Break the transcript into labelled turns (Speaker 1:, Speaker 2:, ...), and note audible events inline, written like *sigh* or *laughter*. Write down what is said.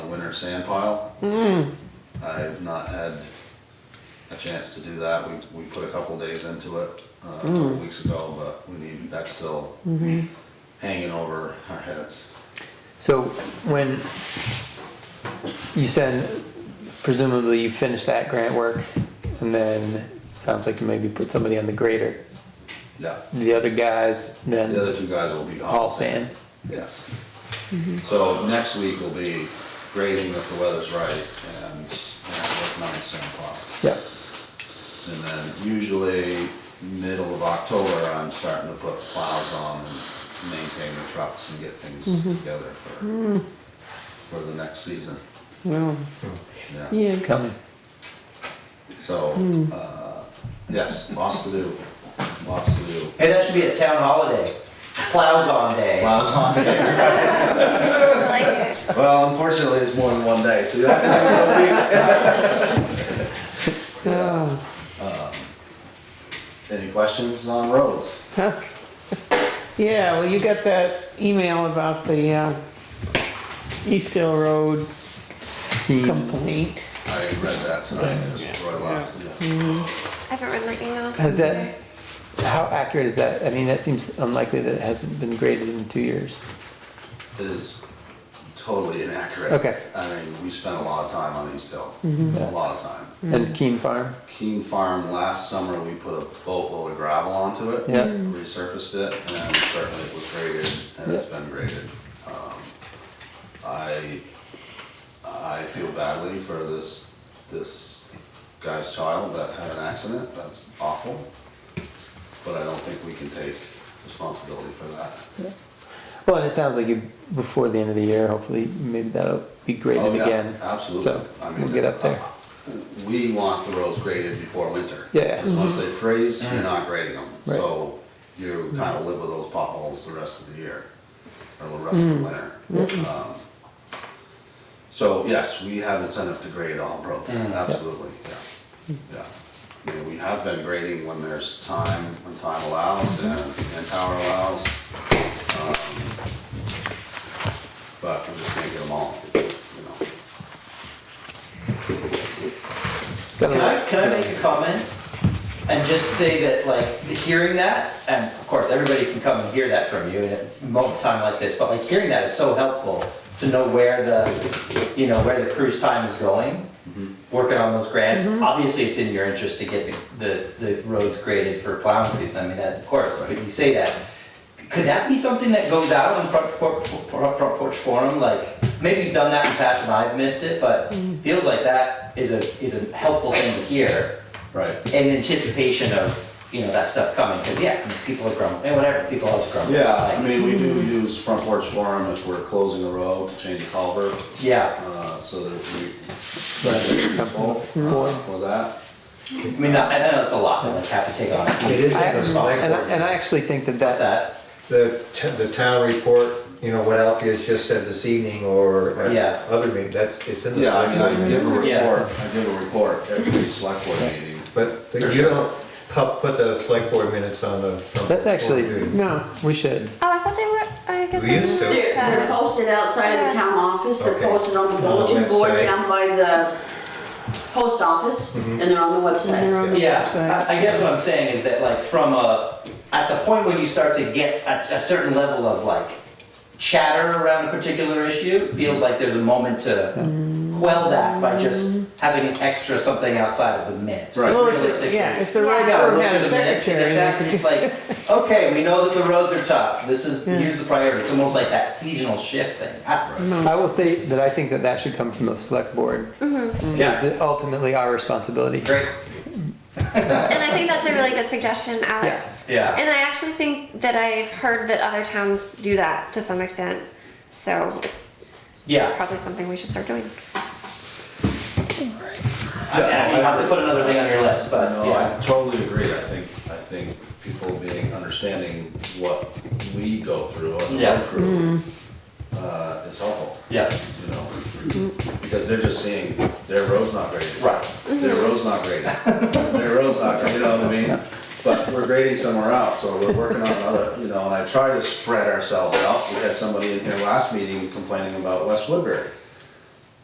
Speaker 1: winter sand pile. I have not had a chance to do that. We, we put a couple days into it, uh, a couple weeks ago, but we need, that's still hanging over our heads.
Speaker 2: So when you said presumably you finished that grant work and then it sounds like you maybe put somebody on the grader.
Speaker 1: Yeah,
Speaker 2: The other guys
Speaker 1: the
Speaker 2: then
Speaker 1: other two guys will be gone.
Speaker 2: all sand.
Speaker 1: Yes. So next week will be grading if the weather's right and, and working on the sand pile.
Speaker 2: Yep.
Speaker 1: And then usually middle of October, I'm starting to put plows on and maintain the trucks and get things together for, for the next season.
Speaker 2: Well,
Speaker 1: Yeah,
Speaker 3: Yeah.
Speaker 2: coming.
Speaker 1: so, uh, yes, lots to do, lots to do.
Speaker 4: Hey, that should be a town holiday. Plows on day.
Speaker 1: Plows on there. Well, unfortunately, it's more than one day, so you have to do it one week.
Speaker 2: Oh,
Speaker 1: Any questions on roads?
Speaker 3: Yeah, well, you got that email about the, uh, East Hill Road complaint.
Speaker 1: I read that tonight, just before I left.
Speaker 5: I haven't read my email.
Speaker 2: Has that, how accurate is that? I mean, that seems unlikely that it hasn't been graded in two years.
Speaker 1: It is totally inaccurate.
Speaker 2: Okay. Mm-hmm.
Speaker 1: I mean, we spent a lot of time on East Hill, a lot of time.
Speaker 2: And Keen Farm?
Speaker 1: Keene Farm, last summer, we put a boatload of gravel onto it.
Speaker 2: Yeah. Mm.
Speaker 1: Resurfaced it, and certainly it was graded, and it's been graded. Um, I, I feel badly for this, this guy's child that had an accident, that's awful. But I don't think we can take responsibility for that.
Speaker 2: Well, and it sounds like you, before the end of the year, hopefully, maybe that'll be
Speaker 1: Oh,
Speaker 2: graded
Speaker 1: yeah,
Speaker 2: again.
Speaker 1: Absolutely.
Speaker 2: So
Speaker 1: I mean, uh,
Speaker 2: we'll get up there.
Speaker 1: We want the roads graded before winter.
Speaker 2: Yeah.
Speaker 1: Because once they freeze, you're not grading them.
Speaker 2: Right.
Speaker 1: So you kind of live with those potholes the rest of the year, or the rest of the winter. Um, So yes, we have incentive to grade all roads, absolutely, yeah, yeah. I mean, we have been grading when there's time, when time allows and, and power allows. um, But we're just gonna get them all, you know.
Speaker 4: Can I, can I make a comment? And just say that, like, hearing that, and of course, everybody can come and hear that from you in a moment in time like this, but like, hearing that is so helpful to know where the, you know, where the cruise time is going, working on those grants. Obviously, it's in your interest to get the, the, the roads graded for plowing season, I mean, that, of course, but you say that. Could that be something that goes out on Front Porch, Front Porch Forum, like, maybe you've done that in the past and I've missed it, but feels like that is a, is a helpful thing to hear
Speaker 1: Right.
Speaker 4: in anticipation of, you know, that stuff coming, because yeah, people are grumbling, and whatever, people always grumble.
Speaker 1: Yeah, I
Speaker 4: like,
Speaker 1: mean, we do use front porch forum if we're closing a road to change a culvert,
Speaker 4: Yeah,
Speaker 1: uh, so that we.
Speaker 2: More.
Speaker 1: For that,
Speaker 4: I mean, I I know it's a lot to like have to take on.
Speaker 6: It is
Speaker 2: I-
Speaker 6: in the select
Speaker 2: And I,
Speaker 6: board.
Speaker 2: and I actually think that
Speaker 4: What's
Speaker 2: that,
Speaker 4: that?
Speaker 6: The, t- the town report, you know, what Althea's just said this evening or
Speaker 4: Yeah.
Speaker 6: at other meeting, that's, it's in the
Speaker 1: yeah, I
Speaker 6: select
Speaker 1: mean, I give
Speaker 6: board.
Speaker 1: a
Speaker 4: Yeah.
Speaker 1: report, I give a report every select board meeting.
Speaker 6: But
Speaker 4: For
Speaker 6: you
Speaker 4: sure.
Speaker 6: don't pu- put the select board minutes on the. front
Speaker 2: That's
Speaker 6: board,
Speaker 2: actually-
Speaker 6: do you?
Speaker 3: No,
Speaker 2: we should.
Speaker 5: Oh, I thought they were. I guess
Speaker 6: We
Speaker 5: I
Speaker 6: used to.
Speaker 5: didn't notice
Speaker 7: They're, they're
Speaker 5: that.
Speaker 7: posted outside of the town office, they're
Speaker 6: Okay.
Speaker 7: posted on the
Speaker 6: On the
Speaker 7: bulletin board
Speaker 6: website.
Speaker 7: down by the post office, and they're on the
Speaker 3: they're
Speaker 7: website.
Speaker 3: on the
Speaker 4: Yeah,
Speaker 3: website.
Speaker 4: I, I guess what I'm saying is that like from a, at the point when you start to get a, a certain level of like chatter around a particular issue, it feels like there's a moment to
Speaker 3: Mm.
Speaker 4: quell that by just having an extra something outside of the minutes.
Speaker 1: Right.
Speaker 3: Well, if, it-
Speaker 4: Realistically.
Speaker 3: yeah, if the right
Speaker 4: Yeah,
Speaker 3: firm
Speaker 4: look
Speaker 3: had
Speaker 4: at
Speaker 3: a
Speaker 4: the minutes, you
Speaker 3: secretary, they
Speaker 4: get that,
Speaker 3: could
Speaker 4: and It's like,
Speaker 3: *laughs*
Speaker 4: okay, we know that the roads are tough, this is,
Speaker 3: Yeah.
Speaker 4: here's the priority, it's almost like that seasonal shift thing.
Speaker 2: I will say that I think that that should come from the select board.
Speaker 3: Mm.
Speaker 2: It's ultimately our responsibility.
Speaker 4: Great,
Speaker 5: And I think that's a really good suggestion, Alex.
Speaker 4: Yeah.
Speaker 5: And I actually think that I've heard that other towns do that to some extent. So
Speaker 4: yeah.
Speaker 5: probably something we should start doing.
Speaker 4: I mean, I mean, you have to put another thing on your list, but
Speaker 1: Uh, No,
Speaker 4: yeah.
Speaker 1: I totally agree, I think, I think people being, understanding what we go through as a
Speaker 4: Yeah.
Speaker 1: road crew, uh, is helpful.
Speaker 4: Yeah.
Speaker 1: You know, because they're just seeing, their road's not graded.
Speaker 4: Right.
Speaker 1: Their road's not graded. Their road's not graded, you know what I mean? But we're grading somewhere else, or we're working on another, you know, and I try to spread ourselves out. We had somebody in here last meeting complaining about West Woodbury.